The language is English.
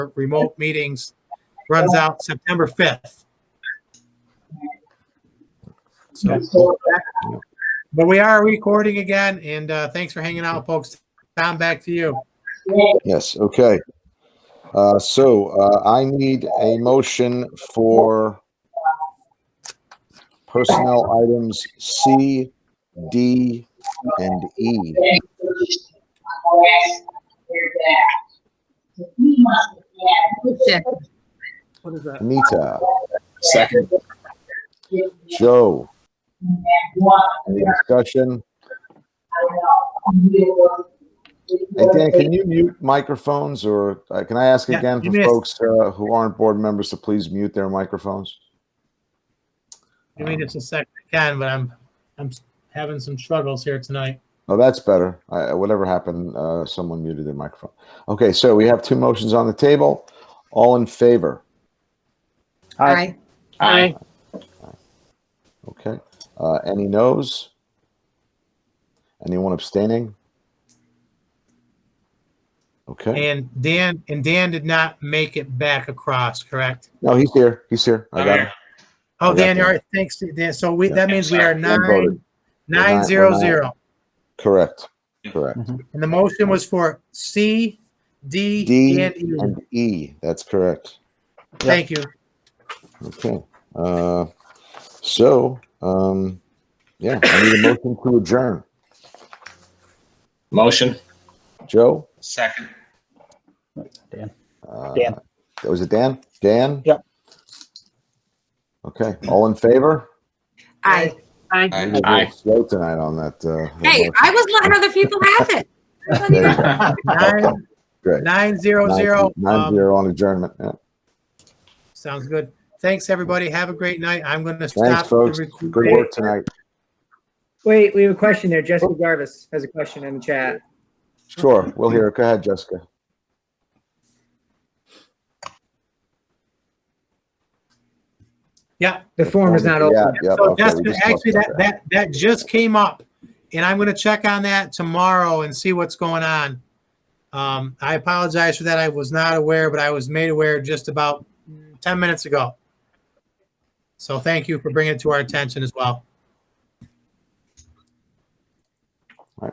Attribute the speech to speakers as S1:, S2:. S1: remote meetings runs out September 5th. So, but we are recording again, and uh, thanks for hanging out, folks. Tom, back to you.
S2: Yes, okay. Uh, so, uh, I need a motion for personnel items C, D, and E.
S3: What is that?
S2: Anita,
S4: Second.
S2: Joe, any discussion? Hey, Dan, can you mute microphones or uh, can I ask
S1: Yeah,
S2: again
S1: you
S2: for
S1: missed.
S2: folks uh, who aren't board members to please mute their microphones?
S1: Give me just a second, I can, but I'm I'm having some struggles here tonight.
S2: Oh, that's better. I, whatever happened, uh, someone muted their microphone. Okay, so we have two motions on the table. All in favor?
S3: Aye.
S4: Aye.
S2: Okay. Uh, any noes? Anyone abstaining? Okay.
S1: And Dan and Dan did not make it back across, correct?
S2: No, he's here. He's here. I got him.
S1: Oh,
S2: Yeah.
S1: Dan, all right, thanks, to Dan. So we that means we are
S2: Dan
S1: nine
S2: voted.
S1: nine zero zero,
S2: Correct. Correct.
S1: and the motion was for C, D,
S2: D
S1: and E.
S2: and E. That's correct.
S1: Thank you.
S2: Okay. Uh, so, um, yeah, I need a motion to adjourn.
S4: Motion.
S2: Joe?
S4: Second.
S2: Uh,
S5: Dan.
S2: Was it Dan? Dan?
S5: Yep.
S2: Okay. All in favor?
S6: I,
S2: We were a little Slow tonight on that. Uh,
S6: hey,
S2: motion.
S6: I was letting other people have it. I wasn't
S2: There you
S6: even-
S2: go.
S1: Nine
S2: Great.
S1: nine zero
S2: Nine-
S1: zero. Um,
S2: nine zero on adjournment. Yeah.
S1: Sounds good. Thanks, everybody. Have a great night. I'm going to
S2: Thanks,
S1: stop. the
S2: folks.
S1: recording.
S2: Good work tonight.
S3: Wait, we have a question there. Jessica Jarvis has a question in the chat.
S2: Sure. We'll hear it. Go ahead, Jessica.
S1: Yeah.
S3: The form is not open.
S2: Yeah, yeah.
S1: So
S2: okay, we
S1: Jessica,
S2: just talked
S1: actually,
S2: about
S1: that, that, that just came up and I'm going to check on that tomorrow and see what's going on. Um, I apologize for that. I was not aware, but I was made aware just about 10 minutes ago. So thank you for bringing it to our attention as well.